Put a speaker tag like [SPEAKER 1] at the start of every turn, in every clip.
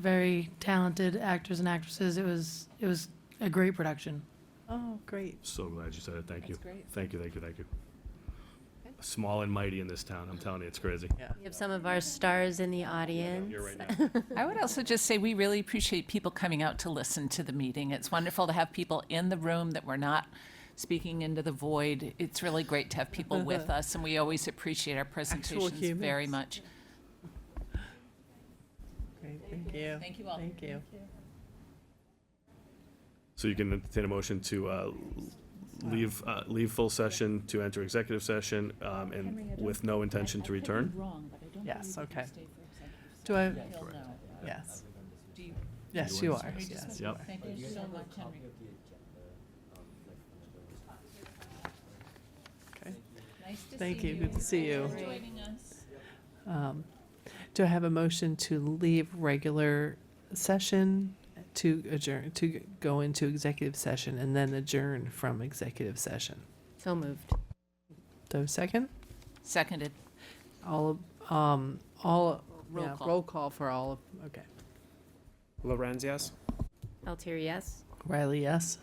[SPEAKER 1] very talented actors and actresses. It was, it was a great production.
[SPEAKER 2] Oh, great.
[SPEAKER 3] So glad you said it. Thank you.
[SPEAKER 2] That's great.
[SPEAKER 3] Thank you, thank you, thank you.
[SPEAKER 2] Okay.
[SPEAKER 3] Small and mighty in this town. I'm telling you, it's crazy.
[SPEAKER 4] We have some of our stars in the audience.
[SPEAKER 3] Here right now.
[SPEAKER 5] I would also just say we really appreciate people coming out to listen to the meeting. It's wonderful to have people in the room that we're not speaking into the void. It's really great to have people with us, and we always appreciate our presentations very
[SPEAKER 2] Uh-huh. humans.
[SPEAKER 5] much.
[SPEAKER 2] Great, thank you.
[SPEAKER 5] Thank you all.
[SPEAKER 2] Thank you.
[SPEAKER 3] So you can entertain a motion to uh, leave, uh, leave full session, to enter executive session, um, and with no intention to return?
[SPEAKER 2] Yes, okay. Do I, yes. Yes, you are, yes.
[SPEAKER 3] Yep.
[SPEAKER 5] Thank you so much, Henry. um,
[SPEAKER 2] Okay.
[SPEAKER 5] Nice to
[SPEAKER 2] Thank
[SPEAKER 5] see
[SPEAKER 2] you, good to see you.
[SPEAKER 5] Thanks for joining us.
[SPEAKER 2] Um, Do I have a motion to leave regular session to adjourn, to go into executive session and then adjourn from executive session?
[SPEAKER 4] So moved.
[SPEAKER 2] Do I have a second?
[SPEAKER 5] Seconded.
[SPEAKER 2] All, of- um, all,
[SPEAKER 5] Roll
[SPEAKER 2] yeah,
[SPEAKER 5] call.
[SPEAKER 2] roll call for all, of okay.
[SPEAKER 6] Lorenz, yes?
[SPEAKER 4] Altieri, yes?
[SPEAKER 2] Riley, yes?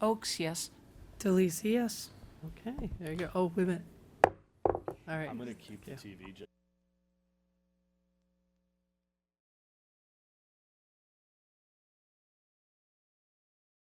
[SPEAKER 5] Oaks, yes.
[SPEAKER 1] Delisi, yes?
[SPEAKER 2] Okay, there you go. Oh, wait a minute. All right.
[SPEAKER 3] keep
[SPEAKER 2] the Yeah.
[SPEAKER 3] TV.